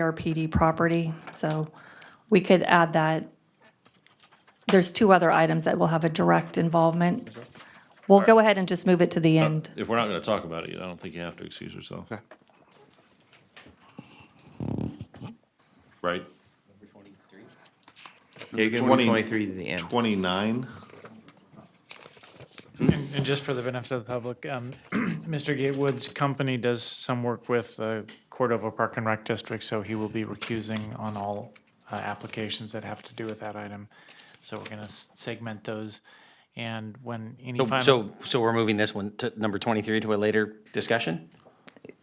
CRPD property, so we could add that. There's two other items that will have a direct involvement. We'll go ahead and just move it to Oh, the end. If we're not going to talk about it, I don't think you have to excuse yourself. Okay. Right? Number Twenty- 23 to the end. 29? And and just for the benefit of the public, um, Mr. Gatewood's company does some work with the Cordova Park and Rec District, so he will be recusing on all uh, applications that have to do with that item. So we're going to segment those, and when any So- final. So, so we're moving this one to number 23 to a later discussion?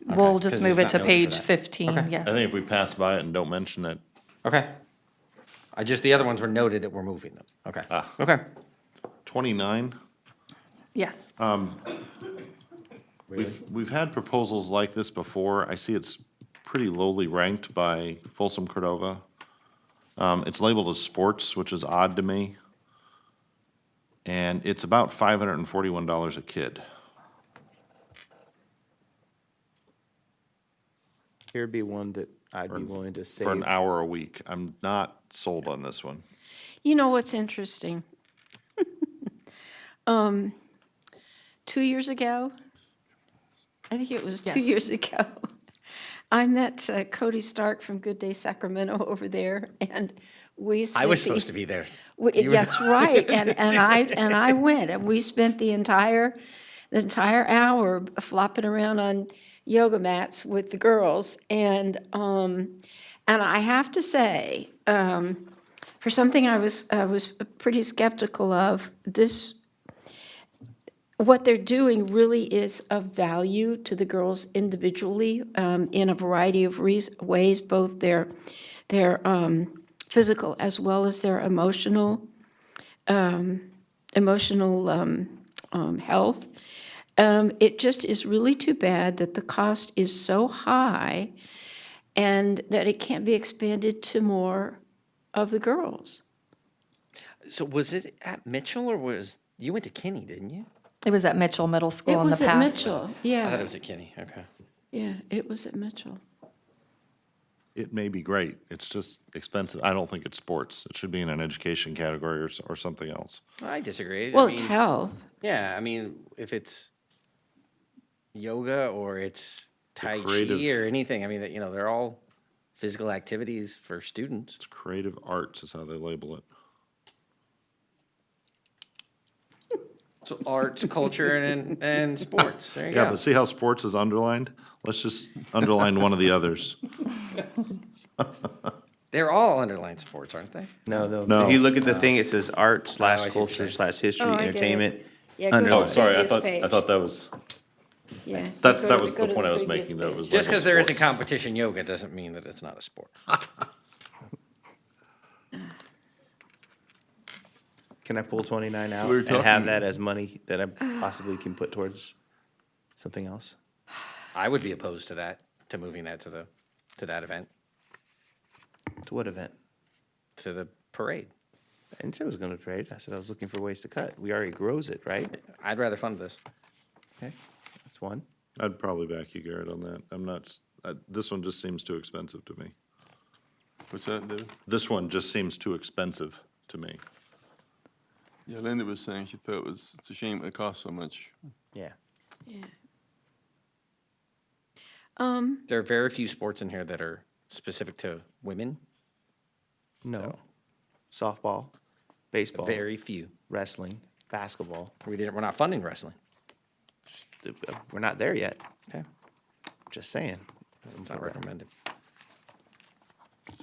We'll Okay, just 'cause move it's it not to noted for page that. 15, Okay. I yes. think if we pass by it and don't mention it, Okay. I just, the other ones were noted that we're moving them. Okay. Ah. Okay. 29? Yes, We've, we've had proposals like this before. I see it's pretty lowly ranked by Folsom Cordova. Um, it's labeled as sports, which is odd to me. And it's about five hundred and forty-one dollars a kid. Here'd be one that I'd be willing to save. for an hour a week. I'm not sold on this one. You know what's interesting? um, two years ago, I think it was two years ago, I met uh, Cody Stark from Good Day Sacramento over there, and we. I was spent the- supposed to be there. we- That's right, and, and I, and I went, and we spent the entire, the entire hour flopping around on yoga mats with the girls, and, um, and I have to say, um, for something I was, I was pretty skeptical of, this, what they're doing really is of value to the girls individually um, in a variety of reas ways, both their their um, physical as well as their emotional um, emotional um, um, health. Um, it just is really too bad that the cost is so high, and that it can't be expanded to more of the girls. So was it at Mitchell or was, you went to Kinney, didn't you? it was at Mitchell Middle It School in the was at past. uh, Mitchell. I thought it Yeah, was at Kinney. Okay. yeah, it was at Mitchell. It may be great. It's just expensive. I don't think it's sports. It should be in an education category or, s- or something else. I disagree. I Well, it's mean, health. Yeah, I mean, if it's yoga or it's Tai creative- Chi or anything, I mean, that you know, they're all physical activities for students. It's creative arts is how they label it. So arts, culture, and, and sports. There you Yeah, go. but see how sports is underlined? Let's just underline one of the others. They're all underlined sports, aren't they? No, though. No. If you look at the thing, it says art slash see what you're culture slash history Oh, I get it. entertainment. Yeah, go to Oh, Underlined. the sorry, previous page. that was, Yeah, you that's, go that to- was go the to point I was previous making, that it page. was. Just labeled because there isn't sports. competition yoga doesn't mean that it's not a sport. Can I pull twenty-nine out we were and have talking- that as money that I possibly can put towards something else? I would be opposed to that, to moving that to the, to that event, To what event? to the parade. I didn't say I was gonna trade. I said I was looking for ways to cut. We already grows it, right? I'd rather fund this. Okay, that's one. I'd probably back you, Garrett, on that. I'm not, s- uh, this one just seems too expensive to me. What's that, David? This one just seems too expensive to me. Yeah, Linda was saying she thought it was, it's a shame it costs so much. Yeah. Yeah. Um, There are very few sports in here that are specific to women, No. Softball, baseball, very few. wrestling, basketball. uh, We didn't, we're not funding wrestling. We're not there yet. Okay. Just saying. It's not recommended.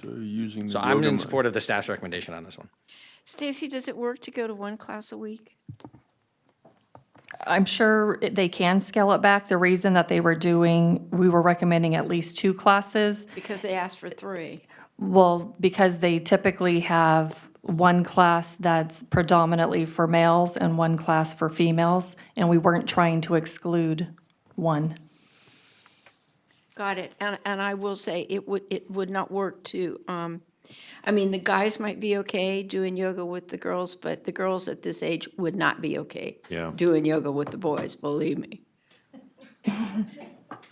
So you're using. So the I'm yoga in mat. support of the staff's recommendation on this one. Stacy, does it work to go to one class a week? I'm sure it- they can scale it back. The reason that they were doing, we were recommending at least two classes Because they asked for three. Well, because they typically have one class that's predominantly for males and one class for females, and we weren't trying to exclude one. Got it. And, and I will say, it would, it would not work to, um, I mean, the guys might be okay doing yoga with the girls, but the girls at this age would not be okay Yeah. doing yoga with the boys, believe me.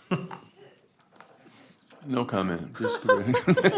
No comment, just go ahead.